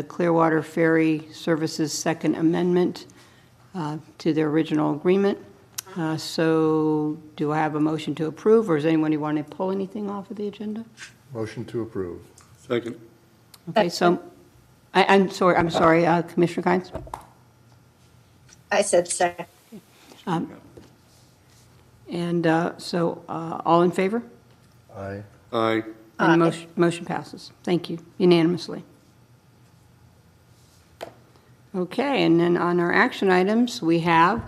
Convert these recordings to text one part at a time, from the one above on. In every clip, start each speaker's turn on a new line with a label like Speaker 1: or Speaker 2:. Speaker 1: the Clearwater Ferry Services Second Amendment uh, to their original agreement. Uh, So do I have a motion to approve, or is anyone who want to pull anything off of the agenda?
Speaker 2: Motion to approve.
Speaker 3: Second.
Speaker 1: Okay, so, I, I'm sorry, I'm sorry, uh, Commissioner Kynes?
Speaker 4: I said second.
Speaker 1: Um, And uh, so, uh, all in favor?
Speaker 2: Aye.
Speaker 3: Aye.
Speaker 1: And
Speaker 4: Aye.
Speaker 1: motion, motion passes. Thank you unanimously. Okay, and then on our action items, we have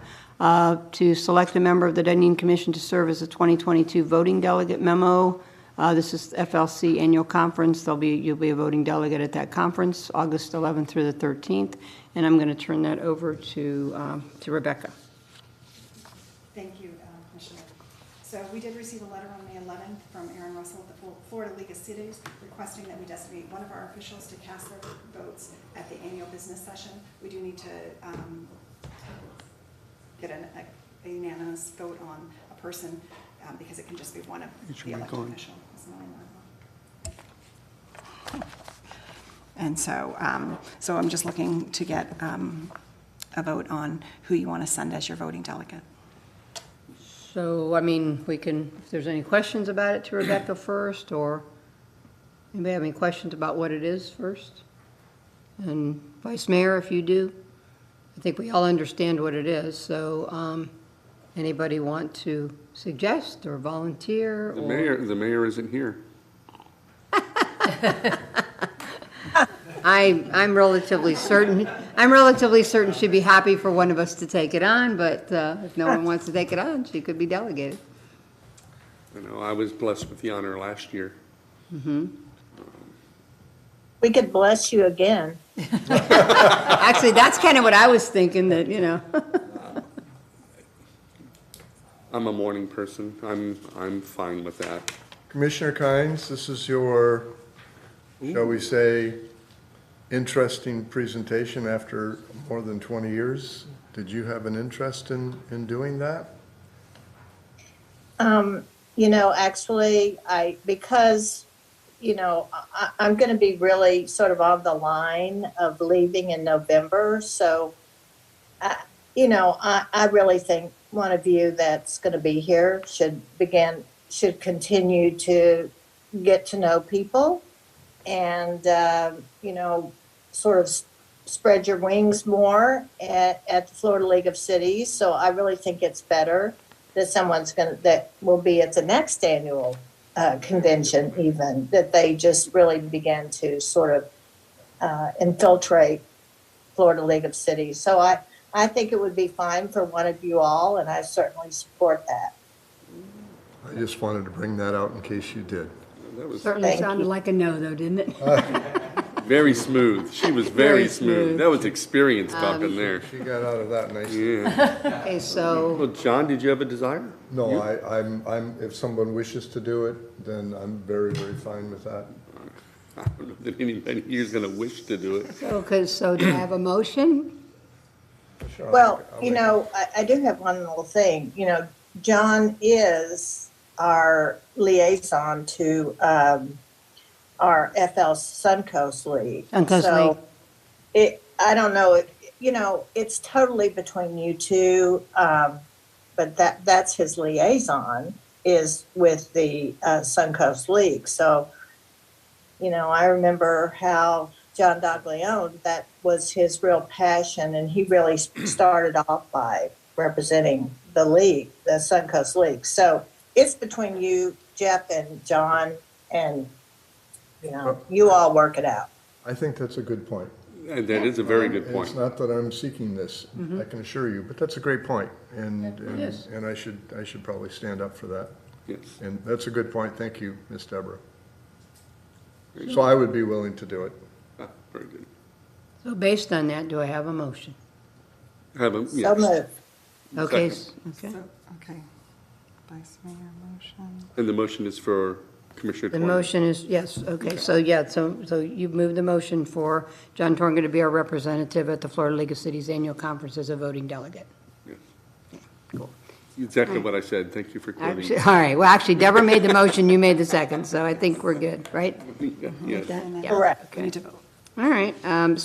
Speaker 1: uh, to select a member of the Dunedin Commission to serve as a 2022 voting delegate memo. Uh, This is FLC Annual Conference. There'll be, you'll be a voting delegate at that conference, August 11th through the 13th. And I'm going to turn that over to um, to Rebecca.
Speaker 5: Thank you, uh, Commissioner. So we did receive a letter on May 11th from Aaron Russell of the Flo- Florida League of Cities requesting that we designate one of our officials to cast their votes at the annual business session. We do need to um, get an- a unanimous vote on a person um, because it can just be one of
Speaker 3: Each
Speaker 5: the
Speaker 3: week
Speaker 5: elected
Speaker 3: on.
Speaker 5: official. It's not allowed. And so, um, so I'm just looking to get, um, a vote on who you want to send as your voting delegate.
Speaker 1: So, I mean, we can, if there's any questions about it to Rebecca first, or anybody have any questions about what it is first? And Vice Mayor, if you do, I think we all understand what it is, so, um, anybody want to suggest or volunteer?
Speaker 3: The
Speaker 1: or-
Speaker 3: mayor, the mayor isn't here.
Speaker 1: I, I'm relatively certain, I'm relatively certain she'd be happy for one of us to take it on, but, uh, if no one wants to take it on, she could be delegated.
Speaker 3: You know, I was blessed with the honor last year.
Speaker 4: We could bless you again.
Speaker 1: Actually, that's kind of what I was thinking, that, you know.
Speaker 3: I'm a morning person. I'm, I'm fine with that.
Speaker 2: Commissioner Kynes, this is your, shall we say, interesting presentation after more than 20 years. Did you have an interest in, in doing that?
Speaker 4: Um, you know, actually, I, because, you know, I, I- I'm going to be really sort of on the line of leaving in November. So, I, you know, I, I really think one of you that's going to be here should begin, should continue to get to know people and, uh, you know, sort of s- spread your wings more at, at the Florida League of Cities. So I really think it's better that someone's going to, that will be at the next annual uh, convention even, that they just really begin to sort of uh, infiltrate Florida League of Cities. So I, I think it would be fine for one of you all, and I certainly support that.
Speaker 2: I just wanted to bring that out in case you did.
Speaker 3: That was
Speaker 1: Certainly
Speaker 4: Thank
Speaker 1: sounded
Speaker 4: you. Uh,
Speaker 1: like a no, though, didn't it?
Speaker 3: very smooth. She was
Speaker 1: Very
Speaker 3: very
Speaker 1: smooth. Um,
Speaker 3: smooth. That was experience talking there.
Speaker 2: She got out of that nice.
Speaker 3: Yeah.
Speaker 1: Okay, so,
Speaker 3: Well, John, did you have a desire?
Speaker 2: No, I, I'm, I'm, if someone wishes to do it, then I'm very, very fine with that.
Speaker 3: I don't know that anybody here's gonna wish to do it.
Speaker 1: okay, so do I have a motion?
Speaker 2: Sure, I'll
Speaker 4: Well,
Speaker 2: make- I'll
Speaker 4: you
Speaker 2: make-
Speaker 4: know, I, I do have one little thing. You know, John is our liaison to um, our FL Suncoast League.
Speaker 1: Suncoast
Speaker 4: so
Speaker 1: League.
Speaker 4: It, I don't know. It, you know, it's totally between you two, um, but that that's his liaison is with the uh, Suncoast League. So, you know, I remember how John Doglione, that was his real passion, and he really started off by representing the league, the Suncoast League. So it's between you, Jeff, and John, and you know, you all work it out.
Speaker 2: I think that's a good point.
Speaker 3: And that is a very good
Speaker 2: And It's
Speaker 3: point.
Speaker 2: not that I'm seeking this, I can assure you, but that's a great point, and, and
Speaker 1: is.
Speaker 2: and I should, I should probably stand up for that.
Speaker 3: Yes.
Speaker 2: And that's a good point, thank you, Ms. Deborah. So I would be willing to do it.
Speaker 3: Ah, Very good.
Speaker 1: So based on that, do I have a motion?
Speaker 3: Have a,
Speaker 4: So
Speaker 3: yes.
Speaker 4: move.
Speaker 1: Okay,
Speaker 3: Second.
Speaker 1: s- okay.
Speaker 5: Okay. Vice Mayor motion.
Speaker 3: And the motion is for Commissioner
Speaker 1: The
Speaker 3: Torn.
Speaker 1: motion is, yes, okay, so yeah, so, so you've moved the motion for John Torn to be our representative at the Florida League of Cities Annual Conference as a voting delegate.
Speaker 3: Yes. Exactly what I said. Thank you for quoting.
Speaker 1: Actually, all right, well, actually Deborah made the motion, you made the second, so I think we're good, right?
Speaker 3: Yes.
Speaker 1: Yeah,
Speaker 4: Correct.
Speaker 1: okay. All right, um,